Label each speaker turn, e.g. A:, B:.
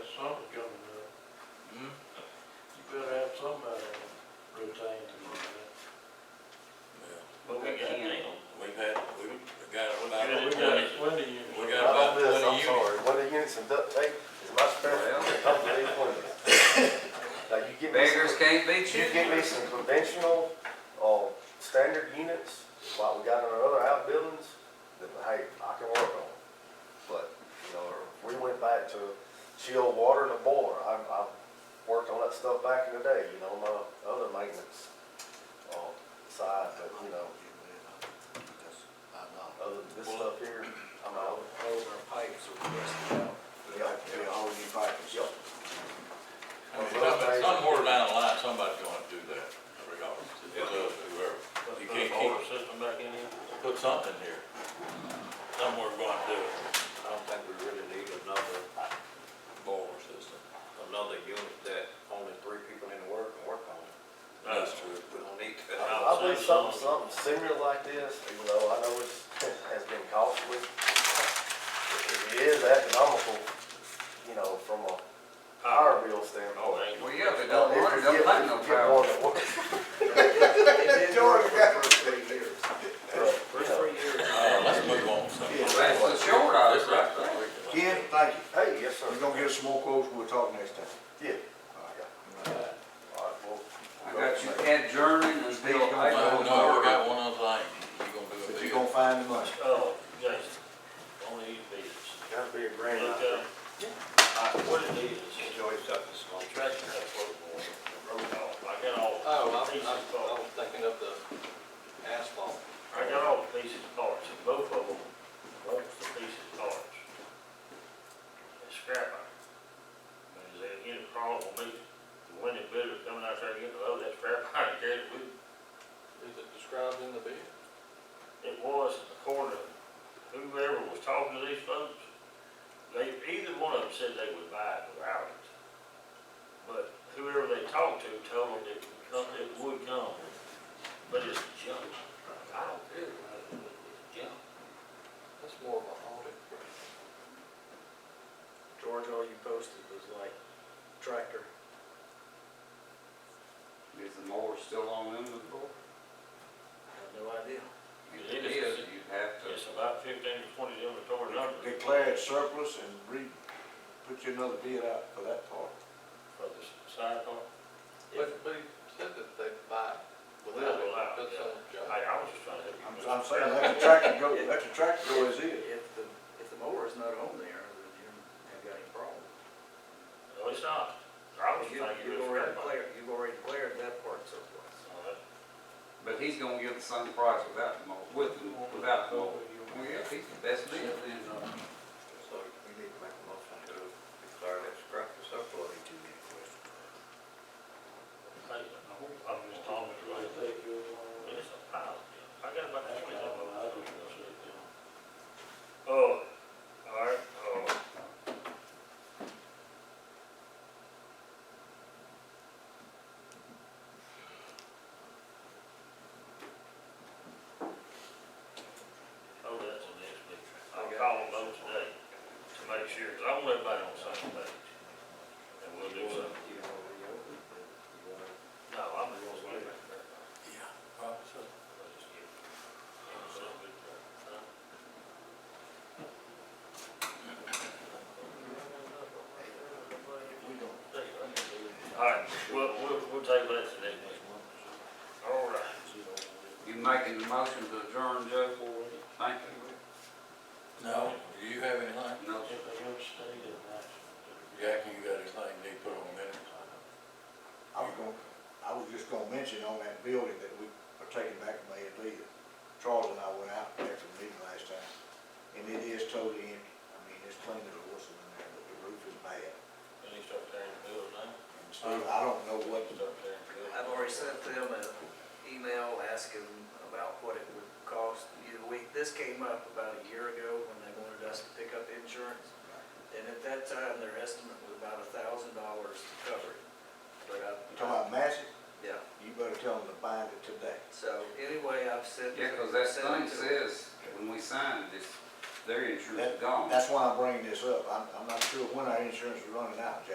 A: uh, uh,
B: get me
C: Beggars
B: some,
C: can't be
B: you get me
C: choosers.
B: some conventional, uh, standard units, like we got in our other outbuildings, that, hey, I can work on. But, you know, we went back to chill water and a boiler, I, I worked on that stuff back in the day, you know, my other maintenance, uh, side, but, you know, other than this stuff here, I'm out.
D: Those are pipes that we rusted out.
B: Yeah,
D: Be a whole new pipe and stuff.
E: I mean, some- Somewhere down the line, somebody's gonna do that, regardless, it's us, whoever. You can't keep,
A: system back in here?
E: put something here. Somewhere gonna do it,
A: I don't think we really need another,
E: boiler system.
A: another unit that only three people need to work and work on it.
E: That's true.
A: We don't need to.
B: I believe something, something similar like this, even though I know it's, has been costly. It is economical, you know, from a power bill
A: Oh,
B: standpoint.
C: Well, yeah, if they
B: Now,
C: don't
B: if
C: want it,
B: you
C: don't
B: get-
C: make no
B: if you get
C: power.
B: one that works,
D: George got. Three years.
B: but, you know,
A: three years.
E: Uh, let's move on, so.
D: Yeah.
C: That's the short of it,
E: This
C: right
E: right
C: there.
D: Ken, thank you.
B: Hey, yes, sir.
D: We're gonna get some more quotes, we'll talk next time.
B: Yeah.
A: Uh,
B: All right, well,
C: I got you adjourning until
E: No,
C: April.
E: no, we got one other thing, you gonna do a
D: But
E: deal.
D: you gonna find the money.
A: Oh, Jason, only these bids.
B: gotta be a grand.
A: Look,
B: idea.
A: uh, I- Uh, what it is, is enjoy stuff that's small trash, that road board, the road dog, I got all.
F: Oh,
A: the
F: I,
A: pieces
F: I, I
A: parts.
F: was thinking of the asphalt.
A: I got all the pieces parts, and both of them wants the pieces parts. It's scrap iron. And they get a problem with me, the winning bidder coming out there to get a load of that scrap iron, carry it with him.
F: Is it described in the bid?
A: It was according to whoever was talking to these folks, they, either one of them said they would buy it without it. But whoever they talked to told them it would come, it would come, but it's junk. I don't care about it, but it's junk.
F: That's more of an audit.
G: George, all you posted was like tractor.
H: Is the mower still on them with the board?
G: I have no idea.
C: If it is, you'd have to.
A: It's about fifteen to twenty inventory numbers
D: Declare it surplus and re, put you another bid out for that part.
A: for the side part.
F: But, but he said that they buy without
A: Without
F: it,
A: allowed,
F: that's on
A: yeah.
F: the job.
A: I, I was just trying to help you.
D: I'm, I'm saying, let the tractor go, let the tractor go as is.
G: If the, if the mower is not on there, then you haven't got any problem.
A: No, it's not. I was
G: You-
A: trying to get it for
G: You've already
A: that part.
G: declared, you've already declared that part surplus.
A: No, that-
C: But he's gonna give the same price without the mower, with the, without the mower. Well, yeah, he's the best deal then, uh,
A: So we need to make a motion to declare that scrap as surplus. Hey, I'm just talking to you. It's a pile. I got about twenty of them. Oh, all right, oh. Oh, that's the next week. I'll call them both today to make sure, 'cause I want everybody on the same page. And we'll do something.
G: You know, you open it, you want to
A: No, I'm the ones way back there. All right, we'll, we'll, we'll take that to next week. All right.
C: you making the motion to adjourn, Joe? Thank you.
E: No, do you have anything?
C: No,
E: Jackie, you got anything they put on minutes?
D: I was gonna, I was just gonna mention on that building that we are taking back from A and B, that Charles and I went out there to the meeting last time, and it is totally empty. I mean, it's clean as a whistle in there, but the roof is bad.
A: And he start tearing the building down.
D: And so I don't know what,
A: He start tearing the building
G: I've already
A: down.
G: sent them an email asking about what it would cost either week. This came up about a year ago when they wanted us to pick up insurance. And at that time, their estimate was about a thousand dollars to cover it. But I,
D: you talking about massive,
G: yeah,
D: you better tell them to bind it today.
G: so anyway, I've sent.
C: yeah, cause that
G: sent it
C: thing
G: to-
C: says, when we signed this, their insurance is
D: That-
C: gone.
D: That's why I'm bringing this up. I'm, I'm not sure when our insurance is running out, Jack.